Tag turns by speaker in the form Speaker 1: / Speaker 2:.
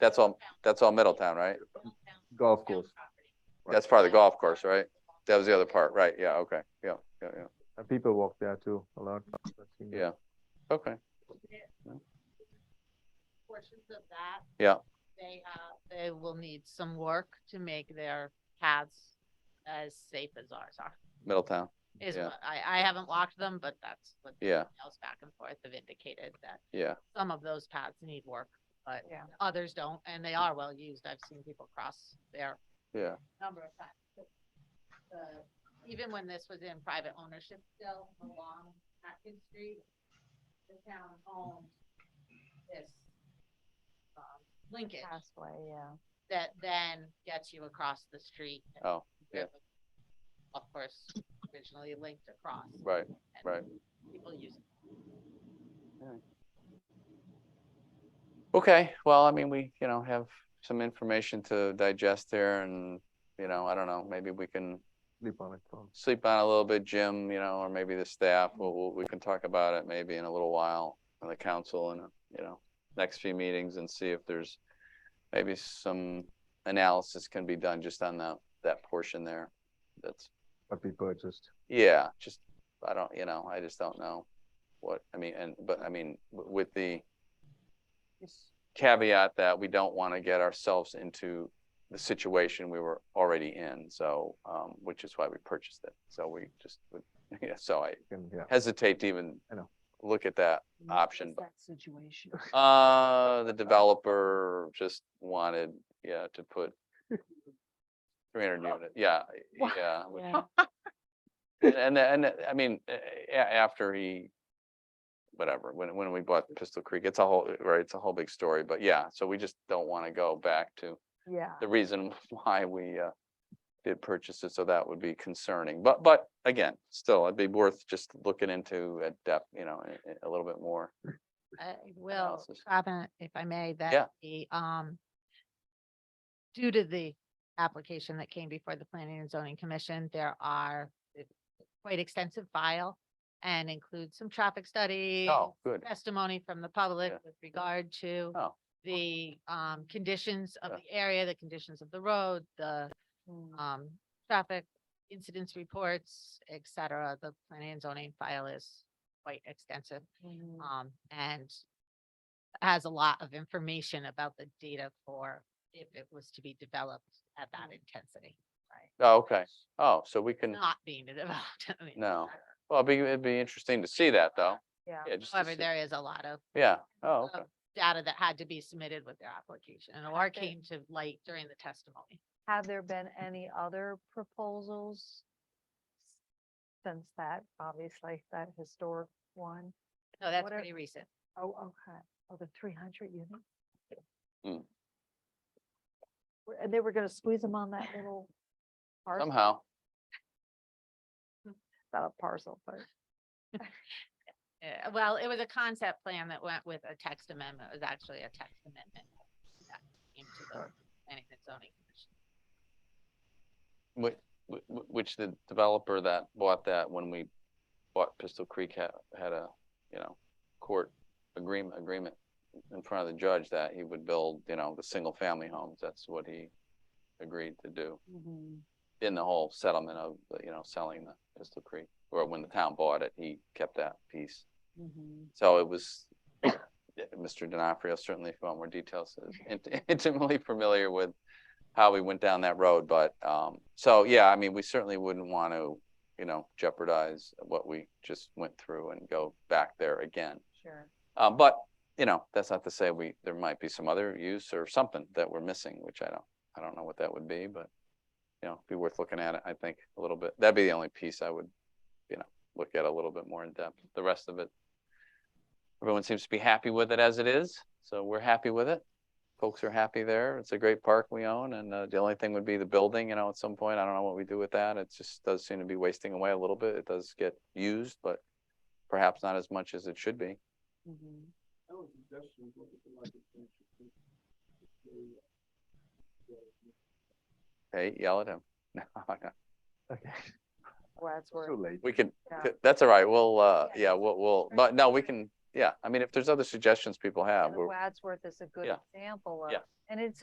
Speaker 1: That's all, that's all Middletown, right?
Speaker 2: golf course.
Speaker 1: That's part of the golf course, right? That was the other part, right? Yeah, okay, yeah, yeah, yeah,
Speaker 2: And people walk there too, a lot.
Speaker 1: yeah. Okay,
Speaker 3: Portions of that.
Speaker 1: Yeah.
Speaker 3: They, uh, they will need some work to make their paths as safe as ours are.
Speaker 1: Middletown,
Speaker 3: Is,
Speaker 1: Yeah.
Speaker 3: what- I, I haven't walked them, but that's what. the
Speaker 1: Yeah.
Speaker 3: Emails back and forth have indicated that
Speaker 1: yeah,
Speaker 3: some of those paths need work, but
Speaker 4: Yeah.
Speaker 3: others don't, and they are well used. I've seen people cross there
Speaker 1: yeah,
Speaker 3: number of times. but the- Even when this was in private ownership still along Atkins Street, the town owned this um, linkage
Speaker 4: Passway, yeah.
Speaker 3: that then gets you across the street. and
Speaker 1: Oh, yeah.
Speaker 3: river. Of course, originally linked across.
Speaker 1: right.
Speaker 3: and
Speaker 1: Right.
Speaker 3: People use it.
Speaker 1: Okay, well, I mean, we, you know, have some information to digest there and, you know, I don't know, maybe we can
Speaker 2: Sleep on it. so.
Speaker 1: sleep on it a little bit, Jim, you know, or maybe the staff, we'll, we'll- we can talk about it maybe in a little while on the council and, you know, next few meetings and see if there's maybe some analysis can be done just on that, that portion there. That's,
Speaker 2: But we purchased.
Speaker 1: yeah, just, I don't, you know, I just don't know what, I mean, and, but I mean, w- with the caveat that we don't want to get ourselves into the situation we were already in, so, um, which is why we purchased it. So we just, would yeah, so I
Speaker 2: And yeah,
Speaker 1: hesitate to even
Speaker 2: I know.
Speaker 1: look at that.
Speaker 4: What
Speaker 1: Option,
Speaker 4: is
Speaker 1: but-
Speaker 4: that Situation.
Speaker 1: Uh, the developer just wanted, yeah, to put three hundred unit, yeah,
Speaker 4: Wow.
Speaker 1: yeah. which-
Speaker 4: Yeah.
Speaker 1: And, and, and, I mean, a- a- after he, whatever, when, when we bought Pistol Creek, it's a whole, uh, right, it's a whole big story, but yeah, so we just don't want to go back to
Speaker 4: Yeah.
Speaker 1: the reason why we, uh, did purchase it, so that would be concerning, but, but again, still, it'd be worth just looking into at depth, you know, a, a little bit more.
Speaker 3: I will
Speaker 1: analysis.
Speaker 3: comment, if I may,
Speaker 1: Yeah.
Speaker 3: that the, um, due to the application that came before the Planning and Zoning Commission, there are a quite extensive file and includes some traffic study,
Speaker 1: Oh, good,
Speaker 3: testimony from the public
Speaker 1: Yeah.
Speaker 3: with regard to
Speaker 1: Oh.
Speaker 3: the, um, conditions of
Speaker 1: Yeah.
Speaker 3: the area, the conditions of the road, the,
Speaker 4: Mm.
Speaker 3: um, traffic incidents reports, et cetera. The Planning and Zoning file is quite extensive.
Speaker 4: Mm.
Speaker 3: Um, and has a lot of information about the data for if it was to be developed at that intensity.
Speaker 1: oh, okay, oh, so we can.
Speaker 3: Not being developed. I mean,
Speaker 1: No. Well, it'd be, it'd be interesting to see that though.
Speaker 4: Yeah.
Speaker 1: Yeah, just to
Speaker 3: However,
Speaker 1: see-
Speaker 3: there Uh, is a lot of
Speaker 1: Yeah, oh, okay.
Speaker 3: of data that had to be submitted with their application or came to light during the testimony.
Speaker 4: Have there been any other proposals? Since that, obviously, that historic one?
Speaker 3: No, that's
Speaker 4: What are-
Speaker 3: pretty recent.
Speaker 4: Oh, okay. Oh, the three hundred units?
Speaker 1: Mm.
Speaker 4: Were- And they were gonna squeeze them on that little parcel,
Speaker 1: Somehow,
Speaker 4: not a parcel, but
Speaker 3: Uh, well, it was a concept plan that went with a text amendment. It was actually a text amendment. that came to the Planning and Zoning Commission.
Speaker 1: which, which the developer that bought that when we bought Pistol Creek had, had a, you know, court agreement, agreement in front of the judge that he would build, you know, the single family homes. That's what he agreed to do in the whole settlement of, you know, selling the Pistol Creek. Or when the town bought it, he kept that piece. So it was, yeah, Mr. D'Onofrio certainly, if you want more details, is int- intimately familiar with how we went down that road, but, um, so, yeah, I mean, we certainly wouldn't want to, you know, jeopardize what we just went through and go back there again.
Speaker 4: sure.
Speaker 1: Uh, but, you know, that's not to say we, there might be some other use or something that we're missing, which I don't, I don't know what that would be, but, you know, be worth looking at it, I think, a little bit. That'd be the only piece I would, you know, look at a little bit more in depth. The rest of it, everyone seems to be happy with it as it is, so we're happy with it. Folks are happy there. It's a great park we own, and uh, the only thing would be the building, you know, at some point. I don't know what we do with that. It just does seem to be wasting away a little bit. It does get used, but perhaps not as much as it should be. Hey, yell at him. No, no.
Speaker 2: Okay,
Speaker 4: Well, that's where.
Speaker 2: too late.
Speaker 1: We can,
Speaker 4: Yeah.
Speaker 1: that's all right. We'll, uh,
Speaker 4: Yeah.
Speaker 1: yeah, we'll, we'll, but no, we can,
Speaker 4: yeah, I mean, if there's other suggestions people have,
Speaker 1: And
Speaker 4: we're,
Speaker 1: Wadsworth is a good
Speaker 4: Yeah.
Speaker 1: example of,
Speaker 4: Yeah.
Speaker 1: and it's a